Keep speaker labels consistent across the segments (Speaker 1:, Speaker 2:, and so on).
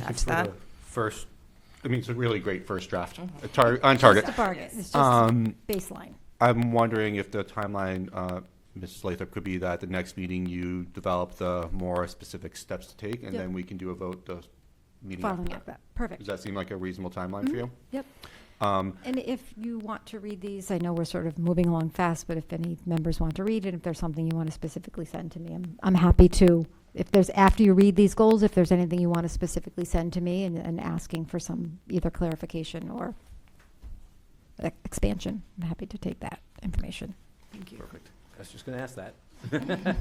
Speaker 1: That's that.
Speaker 2: First, I mean, it's a really great first draft, A tar- on target.
Speaker 3: Mm-hmm. Just a bargain, it's just
Speaker 2: Um,
Speaker 3: baseline.
Speaker 2: I'm wondering if the timeline, uh, Ms. Lathrop, could be that at the next meeting you develop the more specific steps to take, and
Speaker 3: Yep.
Speaker 2: then we can do a vote the meeting after
Speaker 3: Following up
Speaker 2: that.
Speaker 3: Mm-hmm. that, perfect.
Speaker 2: Does that seem like a reasonable timeline for you?
Speaker 3: Yep.
Speaker 2: Um,
Speaker 3: And if you want to read these, I know we're sort of moving along fast, but if any members want to read it, if there's something you want to specifically send to me, I'm, I'm happy to. If there's, after you read these goals, if there's anything you want to specifically send to me and, and asking for some either clarification or e- expansion, I'm happy to take that information.
Speaker 4: Thank you.
Speaker 5: Perfect. I was just going to ask that.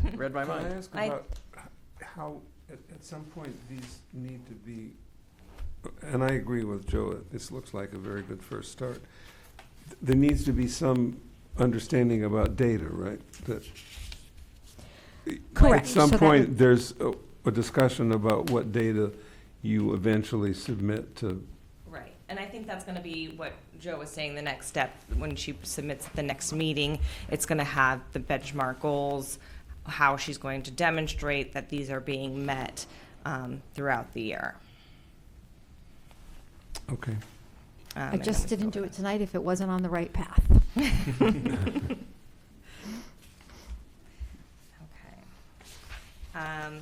Speaker 5: Read my
Speaker 6: Can I
Speaker 5: mind.
Speaker 6: ask
Speaker 1: I-
Speaker 6: about h- how, at, at some point, these need to be, and I agree with Joe, it- this looks like a very good first start. There needs to be some understanding about data, right? That-
Speaker 3: Correct.
Speaker 6: At some
Speaker 3: So that would-
Speaker 6: point, there's a, a discussion about what data you eventually submit to,
Speaker 1: Right, and I think that's going to be what Joe was saying, the next step, when she submits at the next meeting, it's going to have the benchmark goals, how she's going to demonstrate that these are being met um, throughout the year.
Speaker 6: okay.
Speaker 1: Um,
Speaker 3: I
Speaker 1: and
Speaker 3: just
Speaker 1: then we
Speaker 3: didn't
Speaker 1: go
Speaker 3: do it
Speaker 1: from
Speaker 3: tonight if it wasn't on the right path.
Speaker 1: there. Okay. Um,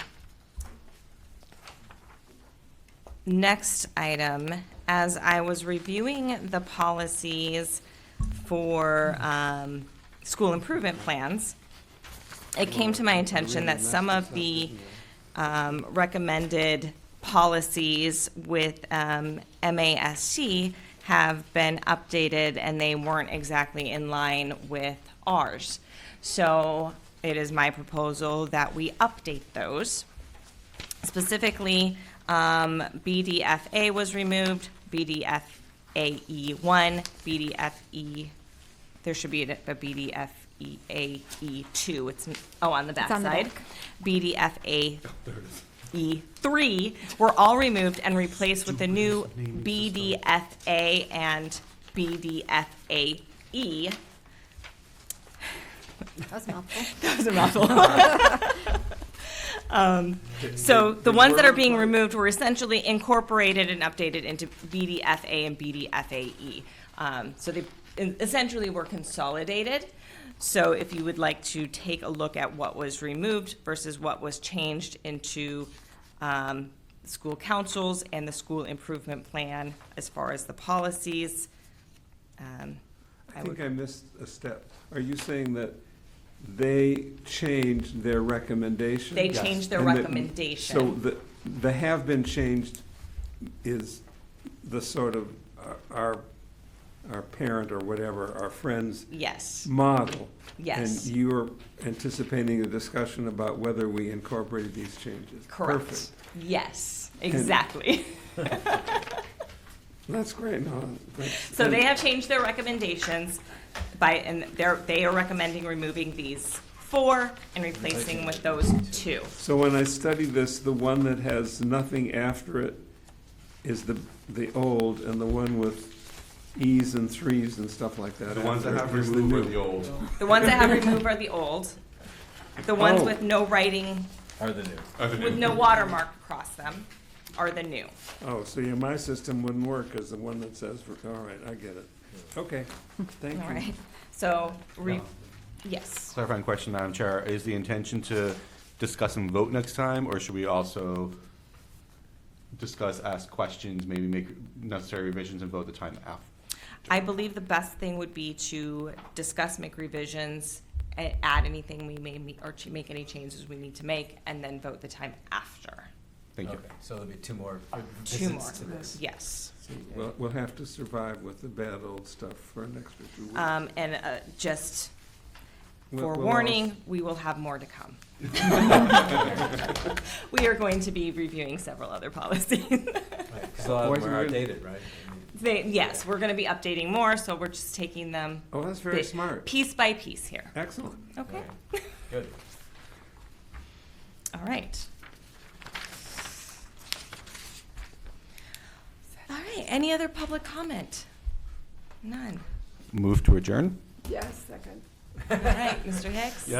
Speaker 1: Next item, as I was reviewing the policies for um, school improvement plans, it came to my attention that some of the um, recommended policies with um, MASC have been updated, and they weren't exactly in line with ours. So it is my proposal that we update those. Specifically, um, BDFA was removed, BDFAE E one, BDFE, E, there should be a a BDFEAE E two, it's, oh, on the
Speaker 3: It's on the
Speaker 1: backside.
Speaker 3: back.
Speaker 1: BDFA E3 E were all removed and replaced with the new BDFA and BDFAE.
Speaker 3: That was a mouthful.
Speaker 1: That was a mouthful. Um, So the ones that are being removed were essentially incorporated and updated into BDFA and BDFAE. Um, So they en- essentially were consolidated. So if you would like to take a look at what was removed versus what was changed into um, school councils and the school improvement plan as far as the policies. um,
Speaker 6: I
Speaker 1: I
Speaker 6: think
Speaker 1: would,
Speaker 6: I missed a step. Are you saying that they changed their recommendation?
Speaker 1: they changed their
Speaker 6: And that-
Speaker 1: recommendation.
Speaker 6: So the, the have been changed is the sort of uh, our, our parent or whatever, our friend's
Speaker 1: Yes,
Speaker 6: model.
Speaker 1: Yes.
Speaker 6: And you're anticipating a discussion about whether we incorporated these changes.
Speaker 1: correct.
Speaker 6: Perfect.
Speaker 1: Yes, exactly.
Speaker 6: That's great, no, that's-
Speaker 1: So they have changed their recommendations by, and they're, they are recommending removing these four and replacing with those two.
Speaker 6: So when I study this, the one that has nothing after it is the, the old, and the one with E's and threes and stuff like that.
Speaker 2: The ones that
Speaker 6: after
Speaker 2: have
Speaker 6: it is the
Speaker 2: removed are
Speaker 6: new.
Speaker 2: the old.
Speaker 1: The ones that have removed are the old. The ones
Speaker 6: Oh.
Speaker 1: with no writing,
Speaker 5: Are the new.
Speaker 2: Are the new.
Speaker 1: with no watermark across them are the new.
Speaker 6: Oh, so yeah, my system wouldn't work as the one that says, all right, I get it. Okay, thank
Speaker 1: All
Speaker 6: you.
Speaker 1: right, so, re, yes.
Speaker 2: Clarifying question, Madam Chair, is the intention to discuss and vote next time, or should we also discuss, ask questions, maybe make necessary revisions and vote the time after?
Speaker 1: I believe the best thing would be to discuss, make revisions, a- add anything we may, me- or to make any changes we need to make, and then vote the time after.
Speaker 2: Thank you.
Speaker 5: Okay, So there'll be two more
Speaker 1: Two
Speaker 5: visits
Speaker 1: more,
Speaker 5: to this.
Speaker 1: yes.
Speaker 6: We'll, we'll have to survive with the bad old stuff for an extra two weeks.
Speaker 1: Um, and, uh, just
Speaker 6: We'll- we'll all-
Speaker 1: forewarning, we will have more to come. We are going to be reviewing several other policies.
Speaker 5: So a lot of
Speaker 6: Boys
Speaker 5: them
Speaker 6: and
Speaker 5: are
Speaker 6: girls.
Speaker 5: outdated, right? I mean,
Speaker 1: They, yes, we're gonna be updating more, so we're just taking them
Speaker 6: Oh, that's very
Speaker 1: bit-
Speaker 6: smart.
Speaker 1: piece by piece here,
Speaker 6: Excellent.
Speaker 1: okay?
Speaker 5: okay. Good.
Speaker 1: All right. All right, any other public comment? None.
Speaker 2: Move to adjourn?
Speaker 4: Yes, second.
Speaker 1: All right, Mr. Hicks?